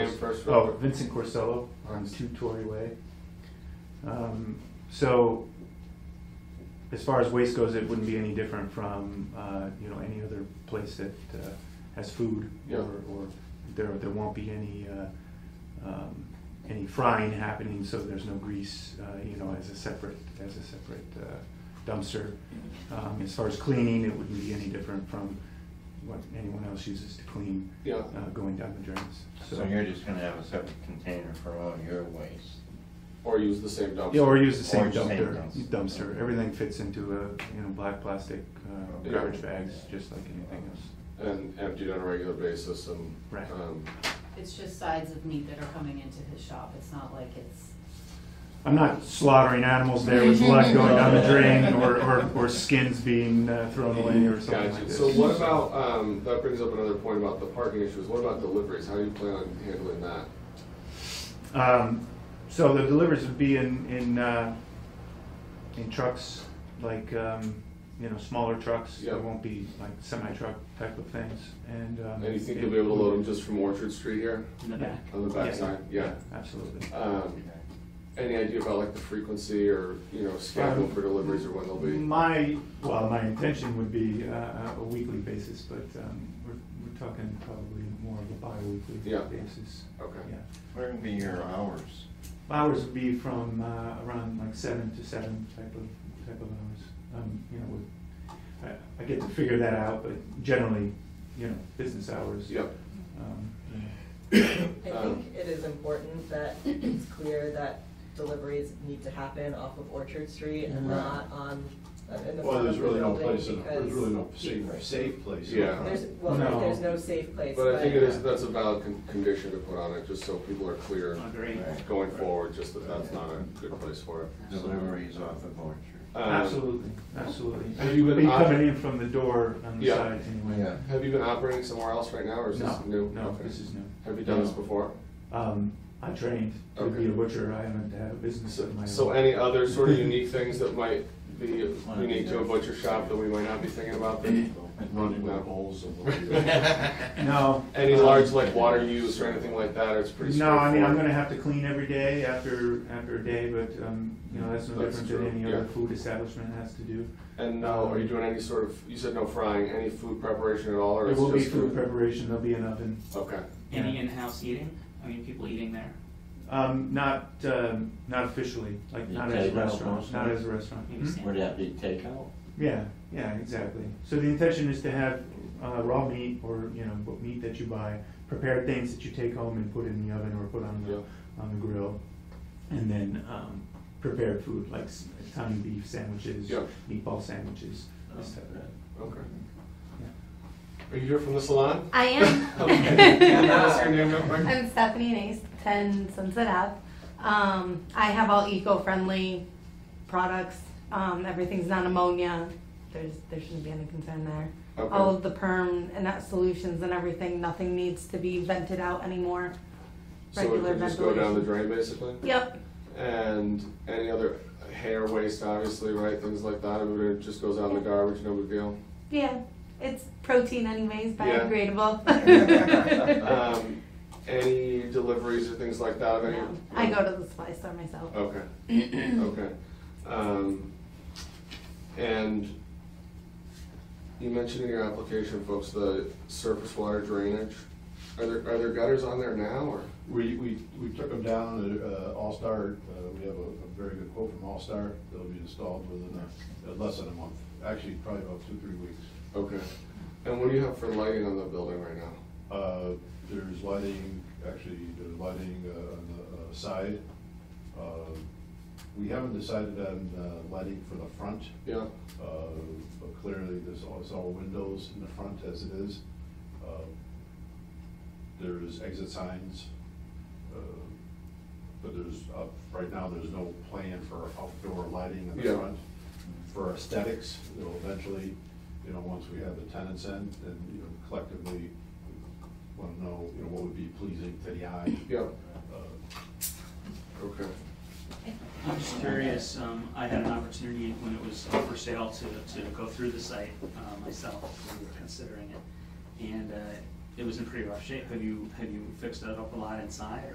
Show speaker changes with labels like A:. A: Oh, Vincent Corsello on Two Torrey Way. Um, So, as far as waste goes, it wouldn't be any different from, uh, you know, any other place that uh, has food.
B: Yeah.
A: Or, or there, there won't be any, uh, um, any frying happening, so there's no grease, uh, you know, as a separate, as a separate uh, dumpster. Um, As far as cleaning, it wouldn't be any different from what anyone else uses to clean
B: Yeah,
A: uh, going down the drains.
C: So you're just gonna have a separate container for all your waste?
B: or use the same dumpster.
A: Yeah, or use the same
C: Or same
A: dumpster,
C: dumpster.
A: dumpster, everything fits into a, you know, black plastic uh,
B: Yeah.
A: garbage bags, just like anything else.
B: And emptied on a regular basis and.
A: Right.
B: um,
D: It's just sides of meat that are coming into his shop, it's not like it's,
A: I'm not slaughtering animals there with blood going down the drain or, or, or skins being uh, thrown away or something like
B: Gotcha.
A: this.
B: So what about, um, that brings up another point about the parking issues. What about deliveries? How do you plan on handling that?
A: Um, so the deliveries would be in, in, uh, in trucks, like, um, you know, smaller trucks. There
B: Yep.
A: won't be like semi-truck type of things and. um,
B: And you think you'll be able to load them just from Orchard Street here
E: in the
A: Yeah.
E: back.
B: on the backside? Yeah.
A: Absolutely.
B: Um, Any idea about like the frequency or, you know, schedule for deliveries or when they'll be?
A: My, well, my intention would be uh, a weekly basis, but um, we're we're talking probably more of a bi-weekly
B: Yeah.
A: basis.
B: Okay.
A: Yeah.
C: Where would be your hours?
A: Hours would be from uh, around like seven to seven type of, type of hours. Um, You know, with- I I get to figure that out, but generally, you know, business hours.
B: Yep.
A: Um, you know.
F: I
B: Um,
F: think it is important that it's clear that deliveries need to happen off of Orchard Street and
C: Right.
F: not on, uh, in the
G: Well,
F: front of
G: there's
F: the
G: really no
F: building
G: place, in-
F: because
G: there's really no safe, safe place. in the
B: Yeah.
G: front.
F: There's, well,
A: No.
F: there's no safe place, but.
B: But I think it is, that's a valid con- condition to put on it, just so people are clear
E: Agree.
C: Right.
B: going forward, just that that's not a good place for it.
C: Deliveries off of Orchard?
B: Um,
A: Absolutely, absolutely.
B: have you been
A: Be
B: op-
A: coming in from the door on the
B: Yeah.
A: side anyway.
C: Yeah.
B: Have you been operating somewhere else right now, or is
A: No,
B: this new?
A: no,
B: Okay.
A: this is new.
B: Have you done this before?
A: Um, I trained to be
B: Okay.
A: a butcher. I haven't had a business
B: So,
A: of my own.
B: so any other sort of unique things that might be
C: Wanna
B: unique
C: be
B: to a
C: there.
B: butcher shop that we might not be thinking about? that-
G: And Running with bowls and. what do you-
A: No.
B: Any
A: um,
B: large like water use or anything like that, or it's pretty
A: No, I
B: straightforward?
A: mean, I'm gonna have to clean every day after, after a day, but, um, you know, that's no
B: That's
A: different
B: true,
A: than any other
B: yeah.
A: food establishment has to do.
B: And now, are you doing any sort of, you said no frying, any food preparation at all, or
A: There
B: it's
A: will be
B: just?
A: food preparation, there'll be an oven.
B: Okay,
E: Any in-house eating? I mean, people eating there?
A: Um, not, um, not officially, like,
C: You
A: not as a
C: take out
A: restaurant,
C: most
A: not
C: of it?
A: as a restaurant.
E: Maybe
A: Hmm?
E: sandwiches.
C: Would that be takeout?
A: Yeah, yeah, exactly. So the intention is to have, uh, raw meat or, you know, what meat that you buy, prepared things that you take home and put in the oven or put on
B: yeah,
A: the, on the grill. And then, um, prepared food, like s- tiny beef sandwiches,
B: Yeah.
A: meatball sandwiches, this type of thing.
B: okay.
A: Yeah.
B: Are you here from the salon?
H: I
B: Okay. Can I ask your
H: am.
B: name real quick?
H: I'm Stephanie Nace, 10 Sunset Ave. Um, I have all eco-friendly products. Um, everything's non ammonia. There's there shouldn't be any concern there.
B: Okay.
H: All of the perm and that solutions and everything. Nothing needs to be vented out anymore.
B: So it
H: Regular
B: could just go down the
H: ventilation.
B: drain, basically?
H: Yep.
B: And any other hair waste, obviously, right, things like that, I mean, it just goes out in the garbage, no big deal.
H: Yeah. It's protein anyways,
B: Yeah.
H: biodegradable.
B: Um, any deliveries or things like that of any?
H: No, I go to the supply store myself.
B: Okay, okay. Um, and you mentioned in your application, folks, the surface water drainage. Are there, are there gutters on there now, or?
G: We, we, we took them down, uh, All-Star, uh, we have a, a very good quote from All-Star, they'll be installed within a, uh, less than a month, actually probably about two, three weeks.
B: Okay. And what do you have for lighting on the building right now?
G: Uh, there's lighting, actually, there's lighting, uh, on the uh, side. Uh, We haven't decided on, uh, lighting for the front,
B: Yeah,
G: Uh, But clearly, there's all, it's all windows in the front as it is. Uh, There's exit signs, uh, but there's, uh, right now, there's no plan for outdoor lighting in
B: Yeah.
G: the front. For aesthetics, it'll eventually, you know, once we have the tenants in, then, you know, collectively, want to know, you know, what would be pleasing to the eye.
B: yeah,
G: Uh,
B: okay.
E: I'm just curious, um, I had an opportunity when it was up for sale to, to go through the site, uh, myself, we were considering it. And, uh, it was in pretty rough shape. Have you, have you fixed it up a lot inside